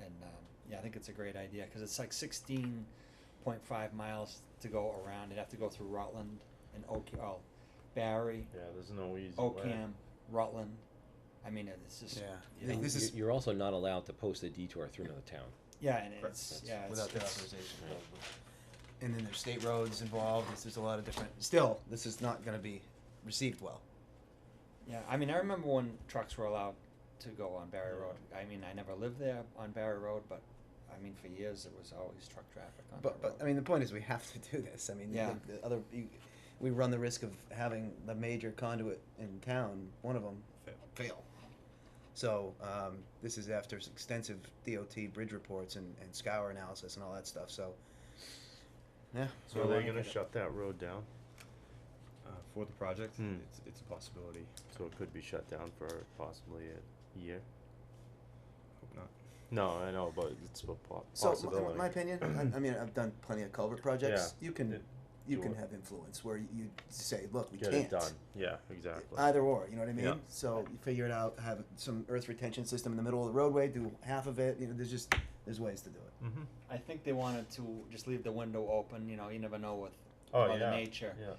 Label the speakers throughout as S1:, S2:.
S1: um, yeah, I think it's a great idea because it's like sixteen point five miles to go around. You'd have to go through Rutland and Oak, oh, Barry,
S2: Yeah, there's no easy
S3: Oh,
S2: way.
S1: Ocam, Rutland. I mean, it's just
S3: Yeah.
S1: you
S3: Hey,
S1: know,
S3: this
S4: You-
S3: is-
S4: You're also not allowed to post a detour through another town.
S1: yeah, and
S2: Correct.
S1: it's
S4: That's
S1: yeah, it's,
S3: without their
S1: it's-
S3: authorization.
S4: Right.
S3: probably. And then there's state roads involved. There's, there's a lot of different. Still, this is not going to be received well.
S1: Yeah, I mean, I remember when trucks were allowed to go on Barry
S2: Yeah.
S1: Road. I mean, I never lived there on Barry Road, but I mean, for years it was always truck traffic on Barry
S3: But but
S1: Road.
S3: I mean the point is we have to do this. I mean the-
S1: Yeah.
S3: the, the other you, we run the risk of having the major conduit in town, one of them fail. So um, this is after s- extensive DOT bridge reports and, and scour analysis and all that stuff. So yeah,
S2: So are they gonna shut that road down?
S5: Uh, for the project,
S2: Hmm.
S5: it's, it's a possibility.
S2: So it could be shut down for possibly a year?
S5: Hope not.
S2: No, I know, but it's a po-
S3: so m-
S2: possibility.
S3: my, opinion, I, I mean I've done plenty of culvert projects.
S2: Yeah.
S3: You can
S2: It-
S3: you
S2: do
S3: can
S2: it.
S3: have influence where you say, look, we
S2: Get
S3: can't
S2: it done, yeah, exactly.
S3: Either or, you know what I mean?
S2: Yeah.
S3: So you figure it out, have some earth retention system in the middle of the roadway, do half of it, you know, there's just, there's ways to do it.
S2: Mm-hmm.
S1: I think they wanted to just leave the window open. You know, you never know with
S2: Oh,
S1: Mother
S2: yeah,
S1: Nature.
S2: yeah.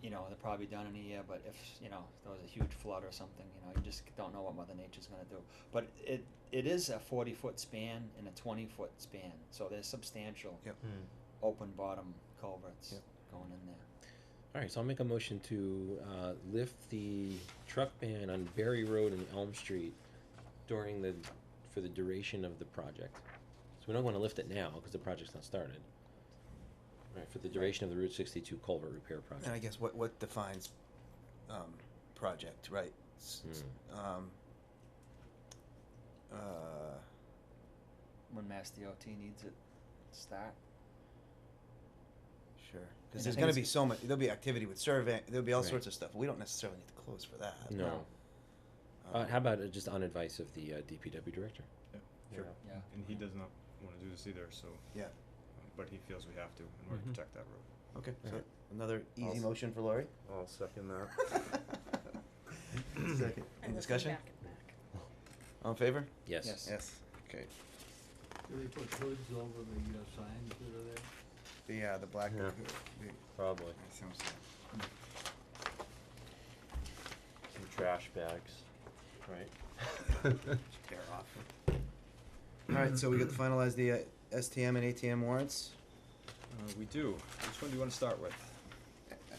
S1: You know, they're probably done in a year, but if you know there was a huge flood or something, you know, you just don't know what Mother Nature's going to do. But it it is a forty foot span and a twenty foot span, so there's substantial
S3: Yep.
S2: Hmm.
S1: open bottom culverts
S3: Yep.
S1: going in there.
S4: All right, so I'll make a motion to uh, lift the truck ban on Berry Road and Elm Street during the, for the duration of the project. So we don't want to lift it now because the project's not started. All right, for the duration of the Route 62 culvert repair
S3: And I
S4: project.
S3: guess what, what defines, um, project, right? S-
S4: Hmm.
S3: s- Um, uh,
S1: When Mass DOT needs it, start.
S3: sure,
S1: And I
S3: cause there's
S1: think
S3: gonna
S1: it's-
S3: be so much, there'll be activity with survey, there'll be all
S4: Right.
S3: sorts of stuff, we don't necessarily need to close for
S1: Hmm.
S3: that.
S4: No. Uh,
S3: Um,
S4: how about uh, just on advice of the uh, DPW director?
S5: Sure.
S1: Yeah.
S5: And he does not want to do this either, so,
S3: Yeah,
S5: um, but he feels we have to in order
S4: Mhm.
S5: to protect that road.
S3: okay, so
S4: Alright.
S3: another easy
S2: Awesome.
S3: motion for Lori?
S2: I'll second that.
S3: Second, any discussion? All in favor?
S4: Yes.
S1: Yes.
S3: Yes. Okay.
S6: Do they put hoods over the uh, signs that are there?
S3: The, uh, the black.
S2: Yeah.
S3: the-
S2: Probably.
S3: that sounds good.
S1: Mm.
S2: Some trash bags, right?
S3: Tear off. Alright, so we got to finalize the, uh, STM and ATM warrants.
S5: Uh, we do. Which one do you want to start with?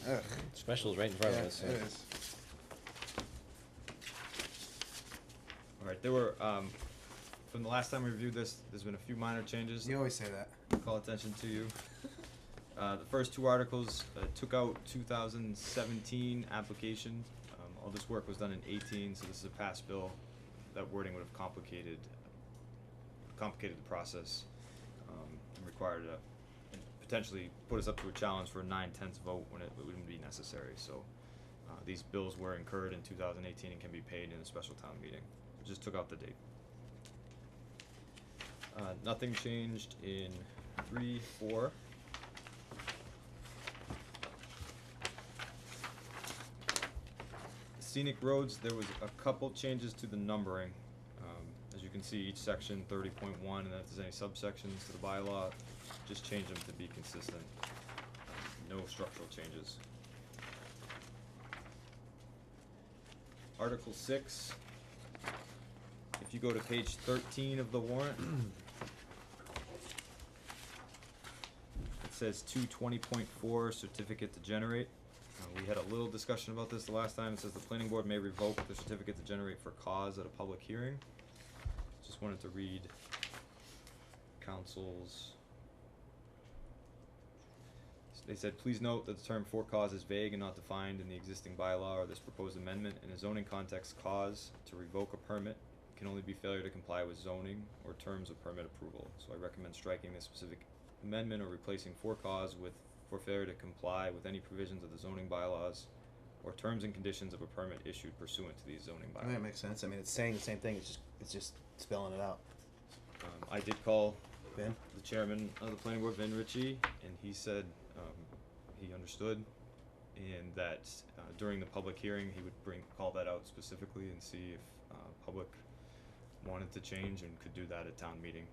S3: Ugh.
S4: Specials right in front
S3: Yeah,
S4: of us. so-
S3: it is.
S5: All right, there were, um, from the last time we reviewed this, there's been a few minor changes.
S3: You always say that.
S5: call attention to you. Uh, the first two articles uh, took out 2017 application. Um, all this work was done in 18, so this is a pass bill. That wording would have complicated, complicated the process, um, and required a, and potentially put us up to a challenge for a nine-tenths vote when it, it wouldn't be necessary. So, uh, these bills were incurred in 2018 and can be paid in a special town meeting. Just took out the date. Uh, nothing changed in three, four. Scenic roads, there was a couple changes to the numbering. Um, as you can see, each section thirty point one, and if there's any subsections to the bylaw, just change them to be consistent. No structural changes. Article six, if you go to page thirteen of the warrant, it says two twenty point four certificate to generate. Uh, we had a little discussion about this the last time, it says the planning board may revoke the certificate to generate for cause at a public hearing. Just wanted to read council's. They said, please note that the term for cause is vague and not defined in the existing bylaw or this proposed amendment. In a zoning context, cause to revoke a permit can only be failure to comply with zoning or terms of permit approval. So I recommend striking this specific amendment or replacing for cause with for failure to comply with any provisions of the zoning bylaws or terms and conditions of a permit issued pursuant to these zoning
S3: I
S5: bylaws.
S3: think that makes sense, I mean, it's saying the same thing, it's just, it's just spelling it out.
S5: Um, I did call
S3: Ben?
S5: the chairman of the planning board, Vin Ritchie, and he said um, he understood, and that uh, during the public hearing, he would bring call that out specifically and see if uh, public wanted to change and could do that at town meeting.